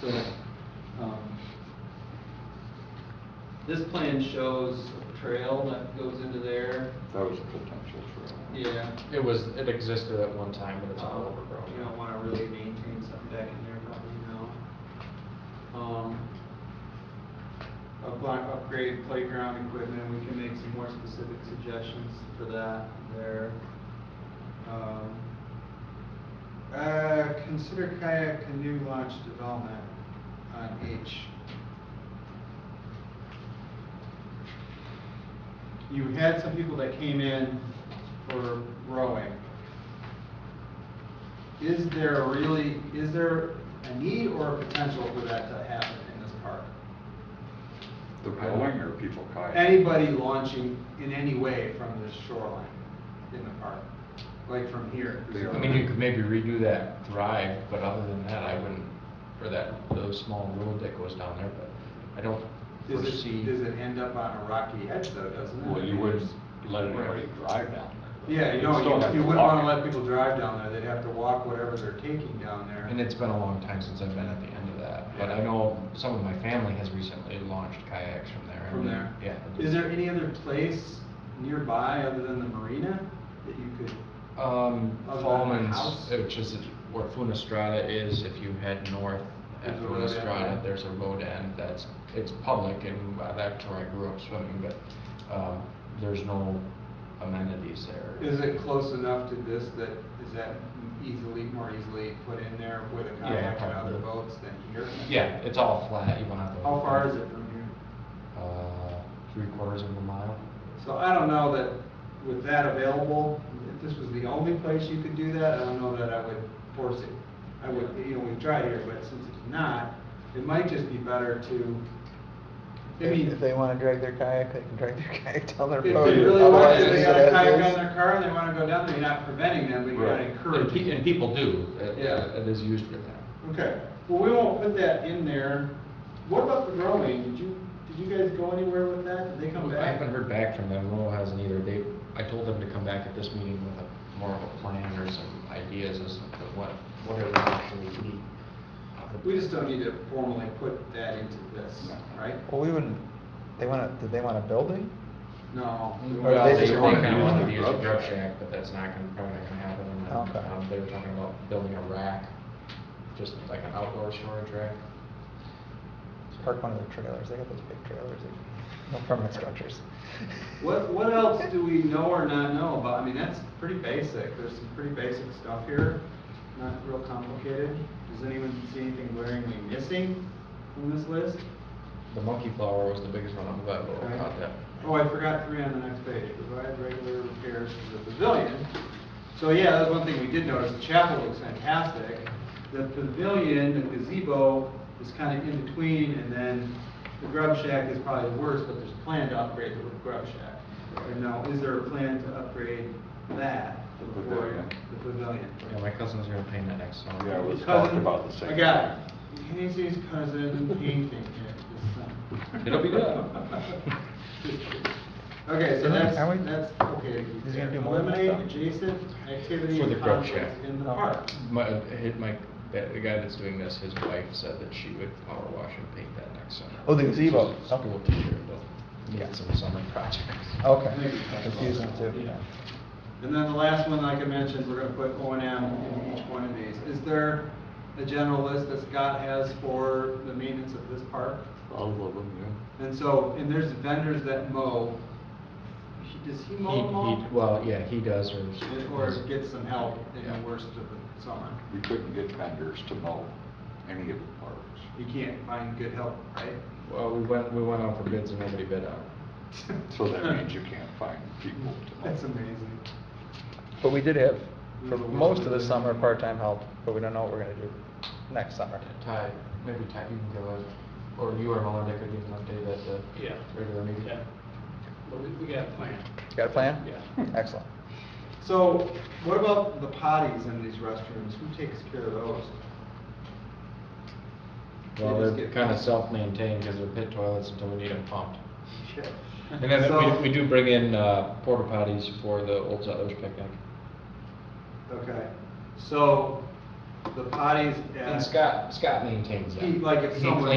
So, um, this plan shows a trail that goes into there, That was a potential uh, trail. yeah. It was, it existed at one time, but it's all Uh, overgrown. You don't wanna really maintain something back in there probably now. Um, upla- upgrade playground equipment, we can make some more specific suggestions for that there. Um, Uh, consider kayak canoe launch development on H. You had some people that came in for rowing is there really, is there a need or a potential for that to happen in this park? The rowing or people kayaking? Anybody launching in any way from the shoreline in the park, like from here? They are. I mean, you could maybe redo that drive, but other than that, I wouldn't, or that, the small road that goes down there, but I don't Does it, foresee. does it end up on a rocky edge though, doesn't it? Well, you wouldn't let anybody drive down there. Yeah, you You'd know, still have you- you to wouldn't wanna walk. let people drive down there, they'd have to walk whatever they're taking down there. And it's been a long time since I've been at the end of that, but I know some of my family has recently launched kayaks from there. and- From there? Yeah. Is there any other place nearby other than the marina that you could? Um, Other than the Fallman's, house? which is where Funestrada is, if you head north at There's a road end, yeah. Funestrada, there's a road end that's, it's public and uh, that's where I grew up swimming, but, um, there's no amenities there. Is it close enough to this that, is that easily, more easily put in there with a Yeah, kayak and other probably. boats than here? Yeah, it's all flat, you don't have to. How far is it from here? Uh, three quarters of a mile. So I don't know that with that available, if this was the only place you could do that, I don't know that I would force it. I would, you know, we've tried here, but since it's not, it might just be better to, I mean. If they wanna drag their kayak, they can drag their kayak down their If they road. really want, Otherwise, if they leave it got a as kayak is. on their car and they wanna go down there, you're not preventing them, but you're Right. not And And encouraging. pe- and people do, It- Yeah. it is used for that. Okay, well, we won't put that in there. What about the growing? Did you, did you guys go anywhere with that? Did they come I back? haven't heard back from them, Lowell hasn't either, they, I told them to come back at this meeting with a, more of a plan or some ideas as to what, what it would actually be. We just don't need to formally put that into this, right? Well, we wouldn't, they wanna, did they want a building? No. Well, they they just kinda wanna use wanted to the use a grub grub shack. shack, but that's not gonna, probably not gonna happen, and Okay. then, um, they were talking about building a rack, just like an outdoor storage rack. Park one of their trailers, they got those big trailers, they- no permanent structures. What, what else do we know or not know about? I mean, that's pretty basic. There's some pretty basic stuff here, not real complicated. Does anyone see anything glaringly missing from this list? The monkey flower was the biggest one, I'm glad Lowell Okay. caught that. Oh, I forgot three on the next page, provide regular repairs to the pavilion. So, yeah, that's one thing we did notice, the chapel looks fantastic. The pavilion, the gazebo is kind of in between, and then the grub shack is probably the worst, but there's a plan to upgrade the grub shack. And now, is there a plan to upgrade that? The before- pavilion. The pavilion. Yeah, my cousin's gonna paint it next summer. Yeah, it was talked Cousin- about the same. I got it. Casey's cousin painting it this summer. It'll be good. Okay, so Isn't it? that's, Are we- that's, okay. Is he gonna do more than Eliminate that? adjacent activity For the and grub shack. conflicts in the park. My, hit my, that, the guy that's doing this, his wife said that she would power wash and paint that next summer. Oh, the gazebo. She's a School teacher, but needs some summer projects. I think Okay, we talked about confusing that, too. yeah. And then the last one, like I mentioned, we're gonna put O and M in each one of these. Is there a general list that Scott has for the maintenance of this park? All of them, And so, and there's vendors that mow. He- Does he He, mow them all? he, well, yeah, he does, or. And- Or get some help in Yeah. the worst of the summer? yeah. We couldn't get vendors to mow any of the parks. You can't find good help, right? Well, we went, we went out for bids and nobody bid on it. So that means you can't find people to mow. That's amazing. But we did have, for most of the summer, part-time help, but we don't know what we're gonna do next summer. Ty, maybe Ty, you can give a, or you or Melinda could give an update at the. Yeah. Regular meeting. Yeah. But we, we got a plan. Got a plan? Yeah. Excellent. So what about the potties in these restrooms? Who takes care of those? Well, They just they're get kinda pumped. self-maintained, cause they're pit toilets until we need them pumped. Shit. And then So- we, we do bring in, uh, porta potties for the Old Settlers picnic. Okay, so the potties at. And Scott, Scott maintains that. He- like if He someone- cleans